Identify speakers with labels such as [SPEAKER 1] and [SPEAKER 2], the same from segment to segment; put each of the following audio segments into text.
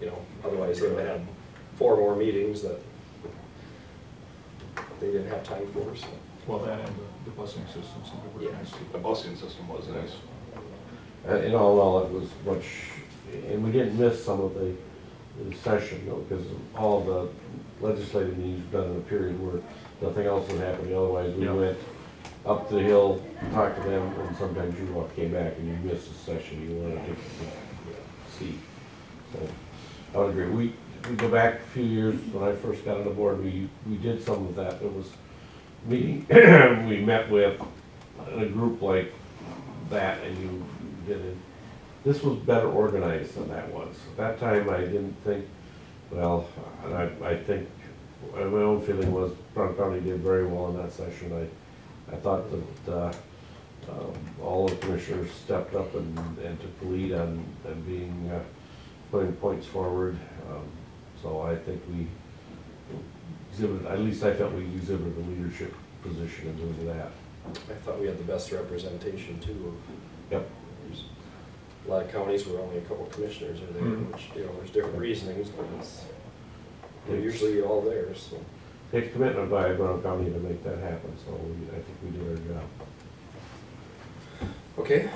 [SPEAKER 1] you know, otherwise they would have had four more meetings that they didn't have time for, so.
[SPEAKER 2] Well, that and the- the busing system, so we were
[SPEAKER 1] Yeah.
[SPEAKER 2] nice to.
[SPEAKER 3] The busing system was nice.
[SPEAKER 4] Uh, In all, all, it was much, and we didn't miss some of the the session, though, because all the legislative needs were done in a period where nothing else was happening, otherwise we
[SPEAKER 2] Yeah.
[SPEAKER 4] went up the hill, talked to them, and sometimes you walk, came back and you missed a session, you wanted to see. So, I would agree, we, we go back a few years, when I first got on the board, we, we did some of that, it was meeting, we met with a group like that and you did it. This was better organized than that was. At that time, I didn't think, well, and I, I think, uh, my own feeling was Brown County did very well in that session. I, I thought that, uh, um, all the commissioners stepped up and, and took the lead on, on being, uh, putting points forward. Um, So I think we exhibited, at least I felt we exhibited a leadership position in doing that.
[SPEAKER 1] I thought we had the best representation too. of-
[SPEAKER 4] Yep.
[SPEAKER 1] There's A lot of counties where only a couple commissioners are there,
[SPEAKER 2] Mhm.
[SPEAKER 1] which, you know, there's different reasonings, but it's, they're usually all there, so.
[SPEAKER 4] Takes commitment by Brown County to make that happen, so we- I think we did our job.
[SPEAKER 1] Okay,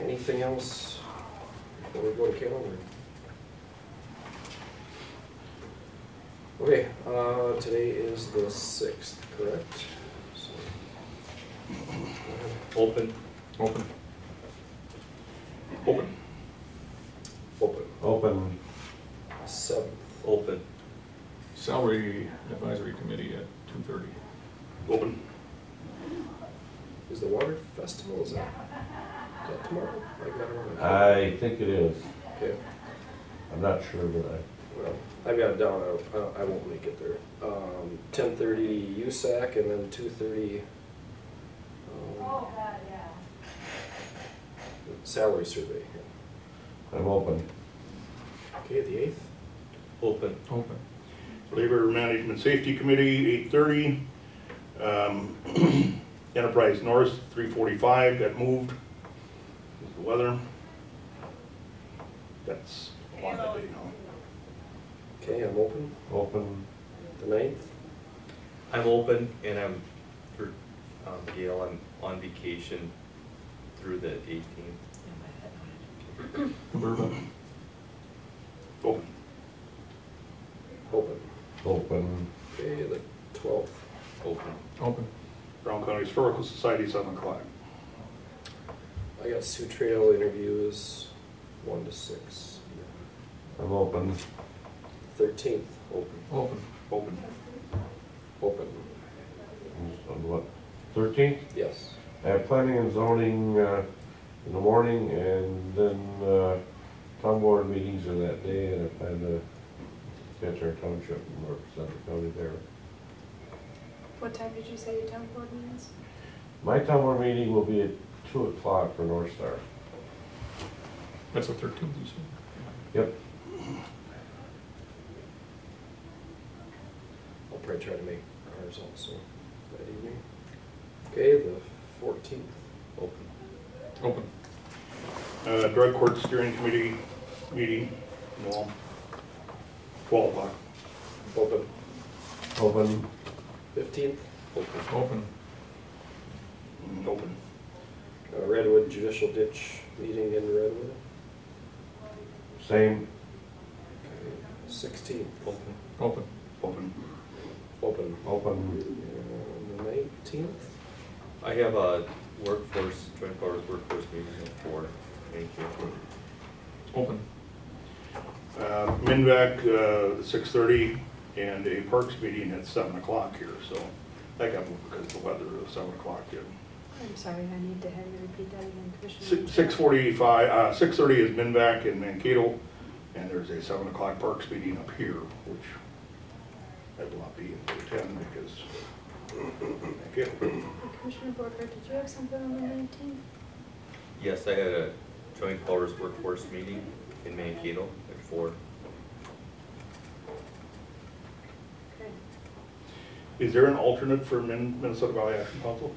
[SPEAKER 1] anything else before we go to calendar? Okay, uh, today is the sixth, correct? So, uh,
[SPEAKER 3] Open.
[SPEAKER 2] Open,
[SPEAKER 3] Open.
[SPEAKER 1] Open,
[SPEAKER 4] Open,
[SPEAKER 1] seventh,
[SPEAKER 3] Open.
[SPEAKER 2] salary advisory committee at two thirty.
[SPEAKER 3] Open.
[SPEAKER 1] is the water festival, is that, is that tomorrow? I got it wrong.
[SPEAKER 4] I think it is.
[SPEAKER 1] Okay,
[SPEAKER 4] I'm not sure, but I,
[SPEAKER 1] well, I've got it down, I- I, I won't make it there. Um, ten thirty USAC and then two thirty, um, salary survey.
[SPEAKER 4] I'm open.
[SPEAKER 1] Okay, the eighth?
[SPEAKER 3] Open.
[SPEAKER 2] Open.
[SPEAKER 5] Labor Management Safety Committee, eight thirty. Um, Enterprise North, three forty-five, got moved. Is The weather. That's one that I know.
[SPEAKER 1] Okay, I'm open,
[SPEAKER 4] Open,
[SPEAKER 1] the ninth?
[SPEAKER 6] I'm open and I'm, for um, Gail, I'm on vacation through the 18th.
[SPEAKER 2] Bourbon,
[SPEAKER 5] Open.
[SPEAKER 1] Open.
[SPEAKER 4] open,
[SPEAKER 1] Okay, the twelfth.
[SPEAKER 6] Open.
[SPEAKER 2] open,
[SPEAKER 5] Brown County Historical Society, seven o'clock.
[SPEAKER 1] I got Sioux Trail interviews, one to six.
[SPEAKER 4] I'm open.
[SPEAKER 1] Thirteenth, open,
[SPEAKER 2] open.
[SPEAKER 5] Open.
[SPEAKER 1] open,
[SPEAKER 4] On what, thirteenth?
[SPEAKER 1] yes.
[SPEAKER 4] I have planning and zoning uh, in the morning and then uh, town board meetings are that day and I plan to catch our township and represent the county there.
[SPEAKER 7] What time did you say your town board meetings?
[SPEAKER 4] My town board meeting will be at two o'clock for North Star.
[SPEAKER 2] That's the thirteenth, you said?
[SPEAKER 4] Yep,
[SPEAKER 1] I'll probably try to make ours also that evening. Okay, the fourteenth,
[SPEAKER 6] Open.
[SPEAKER 2] Open,
[SPEAKER 5] Uh, Drug Court Steering Committee meeting, no. Twelve o'clock.
[SPEAKER 1] open,
[SPEAKER 4] open,
[SPEAKER 1] fifteenth,
[SPEAKER 6] Open.
[SPEAKER 2] open,
[SPEAKER 5] Mm, Open.
[SPEAKER 1] Redwood Judicial Ditch meeting in Redwood.
[SPEAKER 4] same,
[SPEAKER 1] Sixteenth,
[SPEAKER 6] Open.
[SPEAKER 2] open,
[SPEAKER 5] Open.
[SPEAKER 1] open,
[SPEAKER 4] open,
[SPEAKER 1] and the nineteenth,
[SPEAKER 6] I have a workforce, joint powers workforce meeting at four. Thank you.
[SPEAKER 2] open,
[SPEAKER 5] Uh, MinVac, uh, six thirty, and a Parks meeting at seven o'clock here, so that got moved because the weather was seven o'clock here.
[SPEAKER 7] I'm sorry, I need to have you repeat that again, Commissioner.
[SPEAKER 5] Six forty-five, uh, six thirty is MinVac in Mankato, and there's a seven o'clock Parks meeting up here, which I will not be able to attend because Mankato.
[SPEAKER 7] Commissioner Borger, did you have something on the nineteenth?
[SPEAKER 6] Yes, I had a joint powers workforce meeting in Mankato at four.
[SPEAKER 7] Okay.
[SPEAKER 5] Is there an alternate for Min- Minnesota Valley Action Council?